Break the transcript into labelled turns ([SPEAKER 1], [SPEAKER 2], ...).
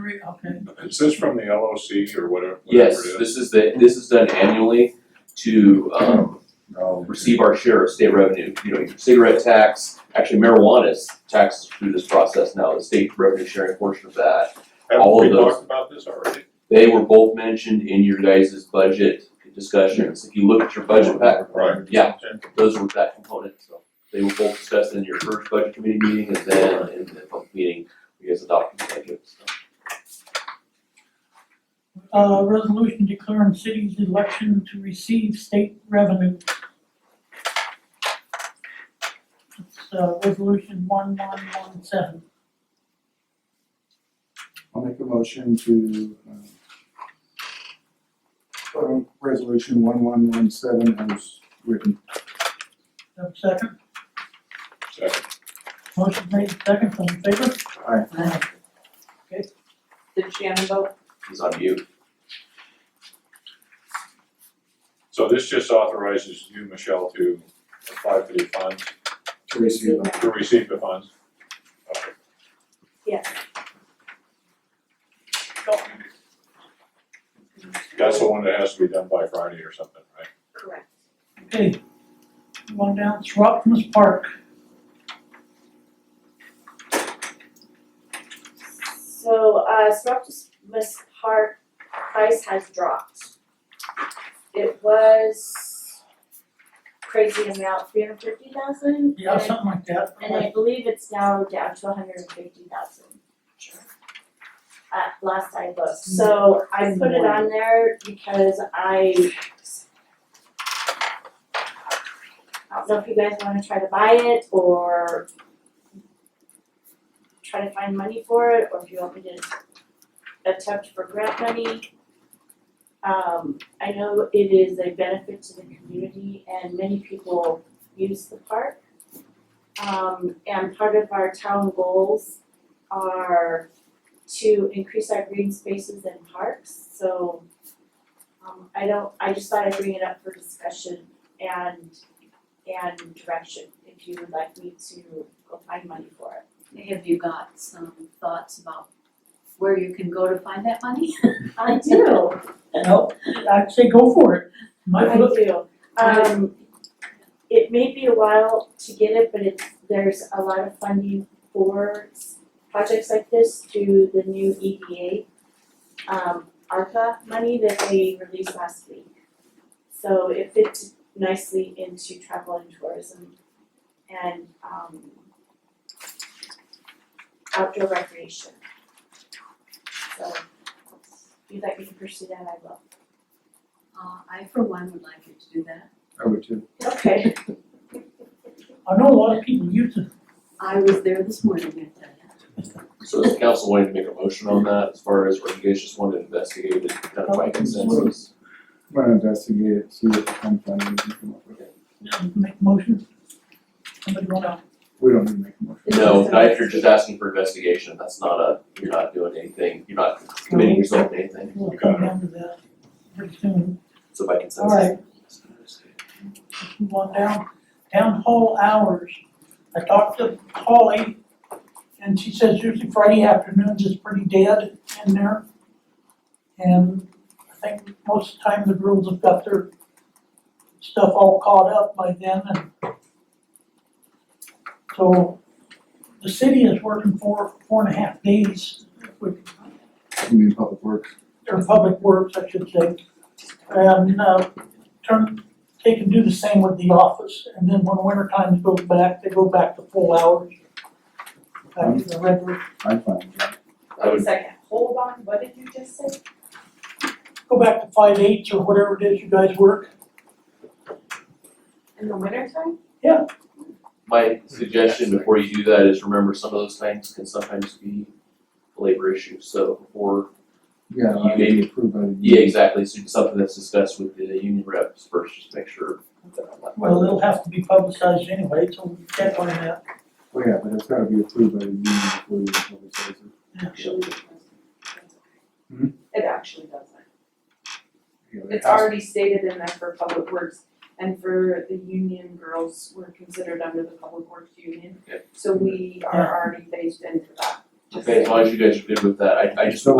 [SPEAKER 1] re, okay,
[SPEAKER 2] Is this from the LOC or whatever, whatever
[SPEAKER 3] Yes,
[SPEAKER 2] it is?
[SPEAKER 3] this is the, this is done annually to, um,
[SPEAKER 2] No.
[SPEAKER 3] receive our share of state revenue. You know, your cigarette tax, actually marijuana is taxed through this process now, the state revenue sharing portion of that.
[SPEAKER 2] Haven't
[SPEAKER 3] all
[SPEAKER 2] we
[SPEAKER 3] of those.
[SPEAKER 2] talked about this already?
[SPEAKER 3] They were both mentioned in your guys' budget discussions. If you look at your budget pack,
[SPEAKER 2] Right.
[SPEAKER 3] yeah, those were that component, so. They were both discussed in your first budget committee meeting and then in the public meeting, you guys adopted the budget, so.
[SPEAKER 1] uh, resolution declaring city's election to receive state revenue. It's, uh, resolution one one one seven,
[SPEAKER 4] I'll make a motion to, um, vote on resolution one one one seven as written.
[SPEAKER 1] have a second,
[SPEAKER 2] Second.
[SPEAKER 1] motion made, second, all in favor?
[SPEAKER 4] Aye.
[SPEAKER 1] Aye.
[SPEAKER 5] Did Shannon vote?
[SPEAKER 3] He's on mute.
[SPEAKER 2] So this just authorizes you, Michelle, to apply for the funds,
[SPEAKER 4] To receive.
[SPEAKER 2] to receive the funds. Okay.
[SPEAKER 5] Yes.
[SPEAKER 2] That's the one that has to be done by Friday or something, right?
[SPEAKER 5] Correct.
[SPEAKER 1] Okay, one down, Throckmorton Park,
[SPEAKER 5] So, uh, Synoptimus Park price has dropped. It was crazy amount, three hundred fifty thousand?
[SPEAKER 1] yeah, something like that,
[SPEAKER 5] And I believe it's now down to hundred and fifty thousand. At last I looked, so I put it on there because I I don't know if you guys wanna try to buy it or try to find money for it, or if you want me to attempt for grant money. Um, I know it is a benefit to the community and many people use the park. Um, and part of our town goals are to increase our green spaces and parks, so um, I don't, I just thought I'd bring it up for discussion and, and direction, if you would like me to go find money for it.
[SPEAKER 6] Have you got some thoughts about where you can go to find that money?
[SPEAKER 5] I do,
[SPEAKER 1] no, I'd say go for it,
[SPEAKER 5] I
[SPEAKER 1] might look,
[SPEAKER 5] do. Um, it may be a while to get it, but it's, there's a lot of funding for s- projects like this through the new EDA, um, ARPA money that they released last week. So it fits nicely into travel and tourism and, um, outdoor recreation. So, if you'd like me to pursue that, I will.
[SPEAKER 6] Uh, I for one would like you to do that.
[SPEAKER 4] I would too.
[SPEAKER 5] Okay.
[SPEAKER 1] I know a lot of people use it,
[SPEAKER 6] I was there this morning, I tell you.
[SPEAKER 3] So is the council wanting to make a motion on that as far as, or you guys just want to investigate it kind of by consensus?
[SPEAKER 4] I'm gonna investigate it, see what kind of funding we can come up with.
[SPEAKER 1] make motion, somebody want to
[SPEAKER 4] We don't need to make a motion.
[SPEAKER 3] No, not if you're just asking for investigation, that's not a, you're not doing anything, you're not committing yourself to anything,
[SPEAKER 1] We'll come down to that pretty soon.
[SPEAKER 3] so by consensus.
[SPEAKER 1] Alright. Move on down, down hall hours. I talked to Holly and she says usually Friday afternoons is pretty dead in there. And I think most of the time the girls have got their stuff all caught up by then and so the city is working four, four and a half days, which
[SPEAKER 4] I mean, public works.
[SPEAKER 1] or public works, I should say. And, uh, turn, they can do the same with the office, and then when winter time goes back, they go back to full hours. Back to the regular,
[SPEAKER 4] I'm fine with that.
[SPEAKER 3] I would,
[SPEAKER 5] second, hold on, what did you just say?
[SPEAKER 1] go back to five eights or whatever it is you guys work.
[SPEAKER 5] In the wintertime?
[SPEAKER 3] my suggestion before you do that is remember some of those things can sometimes be labor issues, so before
[SPEAKER 4] Yeah, I would be approved by the.
[SPEAKER 3] Yeah, exactly, so it's something that's discussed with the union reps first, just make sure that I'm not.
[SPEAKER 1] Well, it'll have to be publicized anyway, so we can't on that.
[SPEAKER 4] Well, yeah, but it's gotta be approved by the union before you publicize it.
[SPEAKER 7] actually does
[SPEAKER 4] Hmm?
[SPEAKER 7] not It actually doesn't.
[SPEAKER 4] Yeah, it
[SPEAKER 7] It's
[SPEAKER 4] has-
[SPEAKER 7] already stated in there for public works and for the union girls were considered under the public works union.
[SPEAKER 3] Okay.
[SPEAKER 7] So we are already phased into that.
[SPEAKER 3] Okay, as long as you guys are good with that, I, I just,
[SPEAKER 4] So